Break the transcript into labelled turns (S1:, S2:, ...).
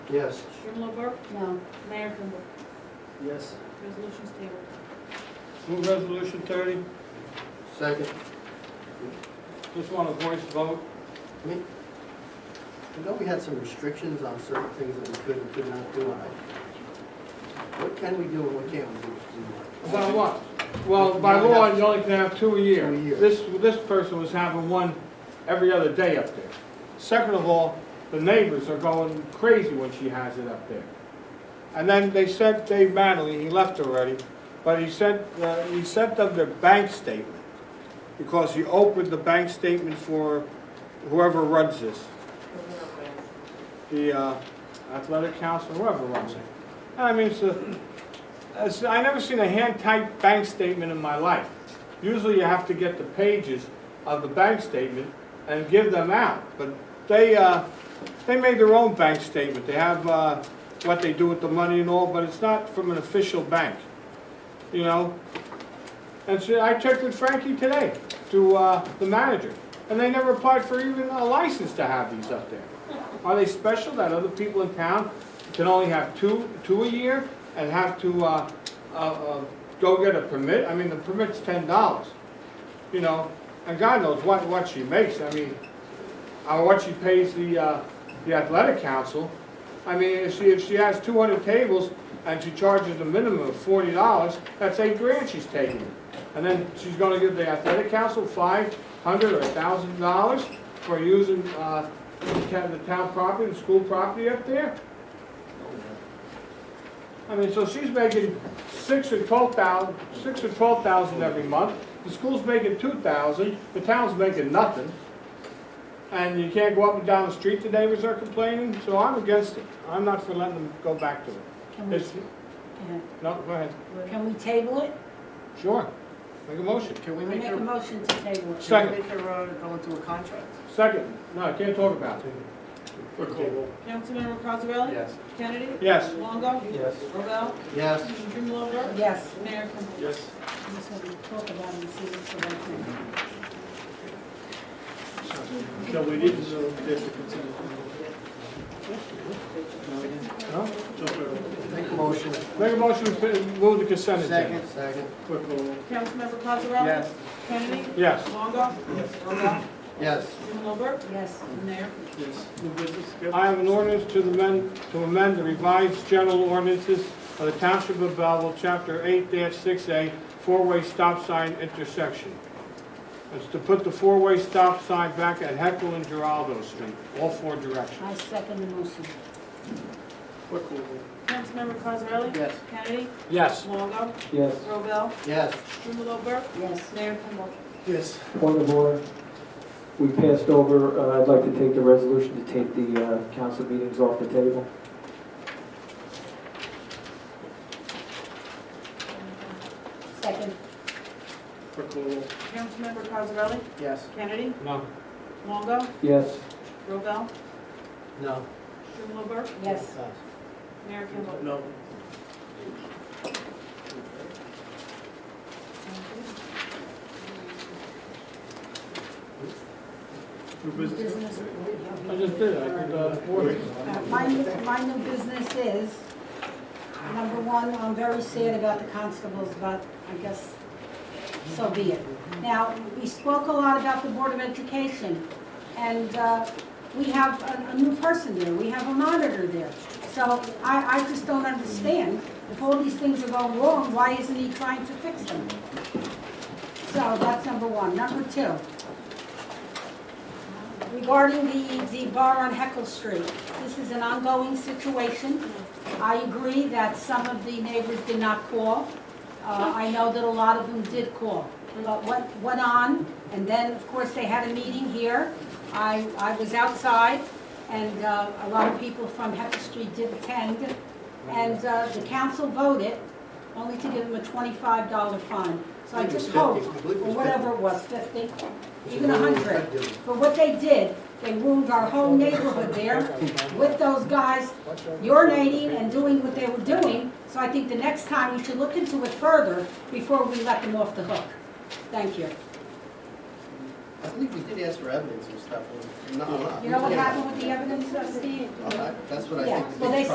S1: Yes.
S2: Strumelob Burke,
S3: No.
S2: Mayor Kimball.
S4: Yes.
S2: Resolution's tabled.
S5: Move resolution thirty,
S1: Second.
S5: just want a voice vote.
S1: I mean, I know we had some restrictions on certain things that we could and could not do. and I- What can we do and what can't we do? Mr.
S5: By
S1: Martin?
S5: what? Well, by law, you only can have two a year.
S1: Two a year.
S5: This, this person was having one every other day up there. Second of all, the neighbors are going crazy when she has it up there. And then they sent Dave Manley, he left already, but he sent, uh, he sent them their bank statement because he opened the bank statement for whoever runs this. the uh, athletic council, whoever runs it. I mean, it's a, it's, I never seen a hand-typed bank statement in my life. Usually you have to get the pages of the bank statement and give them out, but they, uh, they made their own bank statement. They have, uh, what they do with the money and all, but it's not from an official bank, you know? And so I checked with Frankie today, to, uh, the manager, and they never applied for even a license to have these up there. Are they special that other people in town can only have two, two a year and have to, uh, uh, uh, go get a permit? I mean, the permit's ten dollars, you know, and God knows what, what she makes, I mean, or what she pays the, uh, the athletic council. I mean, if she, if she has two hundred tables and she charges a minimum of forty dollars, that's eight grand she's taking. And then she's gonna give the athletic council five hundred or a thousand dollars for using, uh, the town, the town property, the school property up there? I mean, so she's making six or twelve thousand, six or twelve thousand every month, the school's making two thousand, the town's making nothing. And you can't go up and down the street, the neighbors are complaining, so I'm against it, I'm not for letting them go back to it.
S3: Can we,
S5: It's, no, go ahead,
S3: can we table it?
S5: sure, make a motion,
S4: Can we
S3: We
S4: make
S3: make a
S4: her,
S3: motion to table it.
S5: Second.
S4: can we make her uh, go into a contract?
S5: second, no, I can't talk about it,
S2: Councilmember Cosarelli?
S1: Yes.
S2: Kennedy?
S5: yes.
S2: Longo?
S1: Yes.
S2: Robel?
S1: Yes.
S2: Strumelob Burke?
S3: Yes,
S2: Mayor Kimball.
S5: Yes.
S3: I'm just gonna talk about it and see what's the right thing.
S6: No, we didn't, so there's the consent.
S5: No?
S6: Just a
S1: Make a motion.
S5: Make a motion to move the consent agenda.
S1: Second. Second.
S6: quick roll.
S2: Councilmember Cosarelli?
S4: Yes.
S2: Kennedy?
S5: Yes.
S2: Longo? Yes. Robel?
S1: Yes.
S2: Strumelob Burke?
S3: Yes,
S2: Mayor Kimball.
S6: Yes, new business, good.
S5: I have an ordinance to amend, to amend the revised general ordinances of the Township of Belleville, Chapter 8-6A, four-way stop sign intersection. It's to put the four-way stop sign back at Heckle and Geraldo Street, all four directions.
S3: I second the motion.
S6: Quick roll.
S2: Councilmember Cosarelli?
S1: Yes.
S2: Kennedy?
S5: Yes.
S2: Longo?
S7: Yes,
S2: Robel?
S1: Yes.
S2: Strumelob Burke?
S3: Yes,
S2: Mayor Kimball.
S4: Yes.
S7: point of order. We passed over, uh, I'd like to take the resolution to take the uh, council meetings off the table.
S3: second.
S6: Quick roll.
S2: Councilmember Cosarelli?
S4: Yes.
S2: Kennedy?
S5: No.
S2: Longo?
S7: Yes,
S2: Robel?
S1: No.
S2: Strumelob Burke?
S3: Yes,
S2: Mayor Kimball.
S6: No. New business,
S3: business.
S5: I just did, I did, uh, ordinance.
S3: Uh, My, new- my new business is, number one, I'm very sad about the constables, but I guess so be it. Now, we spoke a lot about the Board of Education, and uh, we have a, a new person there, we have a monitor there. So I, I just don't understand, if all these things are going wrong, why isn't he trying to fix them? So that's number one. Number two, regarding the, the bar on Heckle Street, this is an ongoing situation. I agree that some of the neighbors did not call. Uh, I know that a lot of them did call. But what went on, and then, of course, they had a meeting here. I, I was outside, and uh, a lot of people from Heckle Street did attend. And uh, the council voted only to give them a $25 fine. So I just hope, or whatever it was, 50, even 100 for what they did. They ruined our whole neighborhood there with those guys urinating and doing what they were doing. So I think the next time we should look into it further before we let them off the hook. Thank you.
S1: I believe we did ask for evidence and stuff, or not, not.
S3: You know what happened with the evidence, uh, Steve?
S1: All right, that's what I
S3: Yeah,
S1: think. the
S3: well, they
S1: biggest